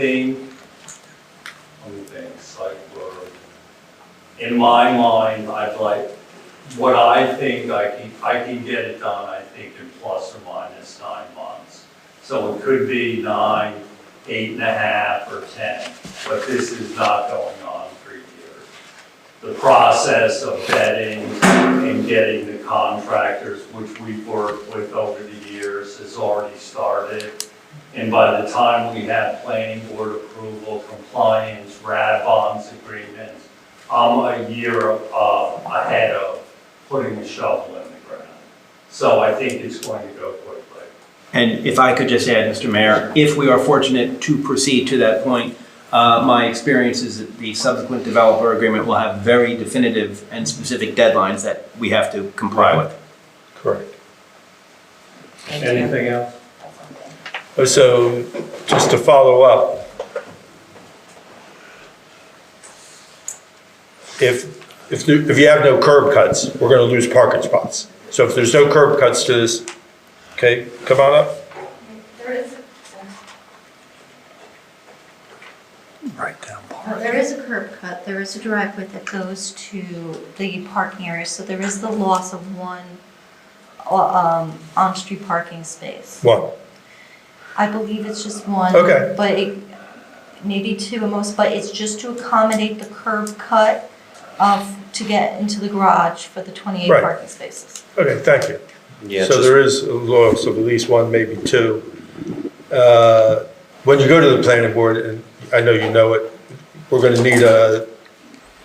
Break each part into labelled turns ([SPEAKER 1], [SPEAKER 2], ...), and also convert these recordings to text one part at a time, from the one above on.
[SPEAKER 1] thing, let me think, select board. In my mind, I'd like, what I think I can, I can get it done, I think in plus or minus nine months. So it could be nine, eight and a half, or ten, but this is not going on for years. The process of vetting and getting the contractors, which we've worked with over the years, has already started. And by the time we have planning board approval, compliance, rad bonds agreements, I'm a year uh, ahead of putting a shovel in the ground. So I think it's going to go quickly.
[SPEAKER 2] And if I could just add, Mr. Mayor, if we are fortunate to proceed to that point, uh, my experience is that the subsequent developer agreement will have very definitive and specific deadlines that we have to comply with.
[SPEAKER 3] Correct.
[SPEAKER 4] Thank you.
[SPEAKER 1] Anything else?
[SPEAKER 3] Oh, So just to follow up, if, if you if you have no curb cuts, we're going to lose parking spots. So if there's no curb cuts to this, okay, come on up.
[SPEAKER 5] There is,
[SPEAKER 3] Right down.
[SPEAKER 5] there is a curb cut, there is a driveway that goes to the parking area, so there is the loss of one uh, um, on-street parking space.
[SPEAKER 3] One,
[SPEAKER 5] I believe it's just one.
[SPEAKER 3] Okay.
[SPEAKER 5] But it, maybe two at most, but it's just to accommodate the curb cut of, to get into the garage for the 28
[SPEAKER 3] Right.
[SPEAKER 5] parking spaces.
[SPEAKER 3] okay, thank you.
[SPEAKER 6] Yeah,
[SPEAKER 3] So
[SPEAKER 6] just,
[SPEAKER 3] there is a loss of at least one, maybe two. Uh, When you go to the planning board, and I know you know it, we're gonna need a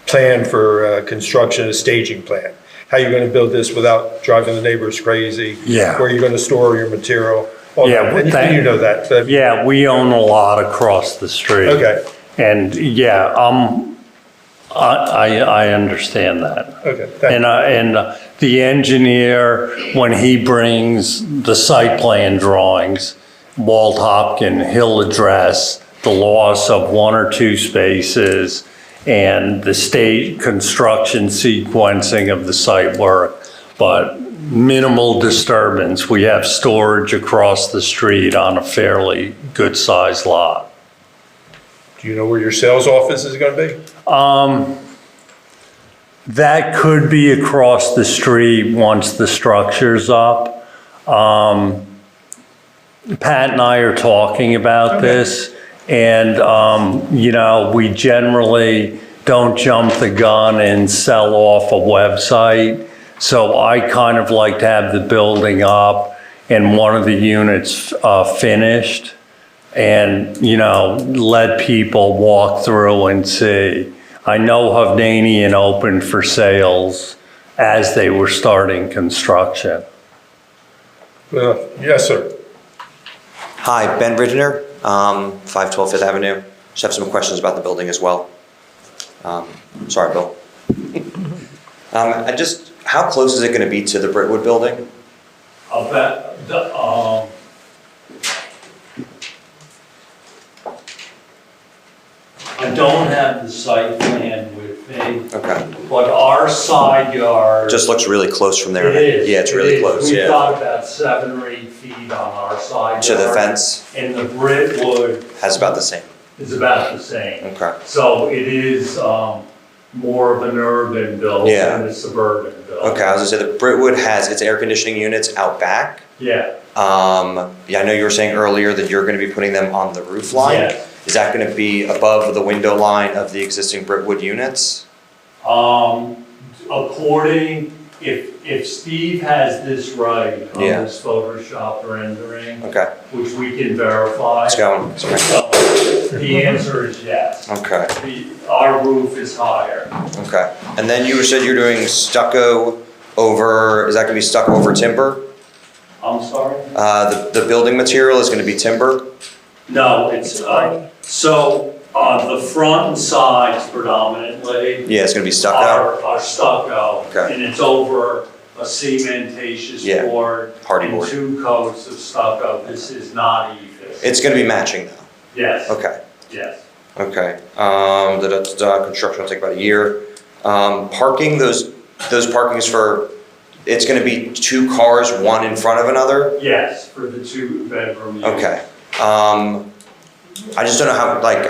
[SPEAKER 3] plan for uh, construction, a staging plan. How you gonna build this without driving the neighbors crazy?
[SPEAKER 7] Yeah.
[SPEAKER 3] Where you gonna store your material? all
[SPEAKER 7] Yeah,
[SPEAKER 3] that.
[SPEAKER 7] well,
[SPEAKER 3] And
[SPEAKER 7] that-
[SPEAKER 3] you know that, but-
[SPEAKER 7] Yeah, we own a lot across the street.
[SPEAKER 3] Okay,
[SPEAKER 7] And yeah, um, I, I, I understand that.
[SPEAKER 3] okay, thank
[SPEAKER 7] And, uh, and uh, the engineer, when he brings the site plan drawings, Walt Hopkin, he'll address the loss of one or two spaces and the state construction sequencing of the site work, but minimal disturbance. We have storage across the street on a fairly good-sized lot.
[SPEAKER 3] Do you know where your sales office is gonna be?
[SPEAKER 7] That could be across the street once the structure's up. Um, Pat and I are talking about this, and, um, you know, we generally don't jump the gun and sell off a website. So I kind of like to have the building up and one of the units uh, finished and, you know, let people walk through and see. I know Hovnanian opened for sales as they were starting construction.
[SPEAKER 3] Uh, Yes, sir.
[SPEAKER 6] hi, Ben Ridner, um, 512 Fifth Avenue. Just have some questions about the building as well. Um, Sorry, Bill. Um, I just, how close is it going to be to the Brickwood building?
[SPEAKER 1] About, the, um, I don't have the site plan with me,
[SPEAKER 6] Okay,
[SPEAKER 1] but our side yard.
[SPEAKER 6] just looks really close from there.
[SPEAKER 1] It is.
[SPEAKER 6] Yeah, it's
[SPEAKER 1] it
[SPEAKER 6] really
[SPEAKER 1] is.
[SPEAKER 6] close,
[SPEAKER 1] We've
[SPEAKER 6] yeah.
[SPEAKER 1] got about seven or eight feet on our side.
[SPEAKER 6] To the
[SPEAKER 1] yard,
[SPEAKER 6] fence,
[SPEAKER 1] And the brick wood
[SPEAKER 6] has about the same,
[SPEAKER 1] is about the same.
[SPEAKER 6] okay.
[SPEAKER 1] So it is um, more of an urban build
[SPEAKER 6] Yeah.
[SPEAKER 1] than a suburban build.
[SPEAKER 6] Okay, I was going to say, the Brickwood has its air conditioning units out back.
[SPEAKER 1] Yeah,
[SPEAKER 6] Um, Yeah, I know you were saying earlier that you're going to be putting them on the roof line.
[SPEAKER 1] Yes.
[SPEAKER 6] Is that going to be above the window line of the existing Brickwood units?
[SPEAKER 1] um, according, if, if Steve has this right on
[SPEAKER 6] Yeah.
[SPEAKER 1] this Photoshop rendering,
[SPEAKER 6] Okay,
[SPEAKER 1] which we can verify.
[SPEAKER 6] let's go.
[SPEAKER 1] So the answer is yes.
[SPEAKER 6] Okay,
[SPEAKER 1] The, our roof is higher.
[SPEAKER 6] okay. And then you said you're doing stucco over, is that gonna be stucco over timber?
[SPEAKER 1] I'm sorry?
[SPEAKER 6] Uh, the, the building material is gonna be timber?
[SPEAKER 1] No, it's, uh, so, uh, the front and sides predominantly
[SPEAKER 6] Yeah, it's gonna be stucco?
[SPEAKER 1] are, are stucco.
[SPEAKER 6] Okay.
[SPEAKER 1] And it's over a cementatious
[SPEAKER 6] Yeah,
[SPEAKER 1] board.
[SPEAKER 6] hardy board.
[SPEAKER 1] And two coats of stucco, this is not even.
[SPEAKER 6] It's gonna be matching though?
[SPEAKER 1] Yes,
[SPEAKER 6] Okay,
[SPEAKER 1] yes.
[SPEAKER 6] okay. Um, da, da, da, da, construction will take about a year. Um, parking, those, those parkings for, it's gonna be two cars, one in front of another?
[SPEAKER 1] Yes, for the two bedroom unit.
[SPEAKER 6] Okay. Um, I just don't know how, like,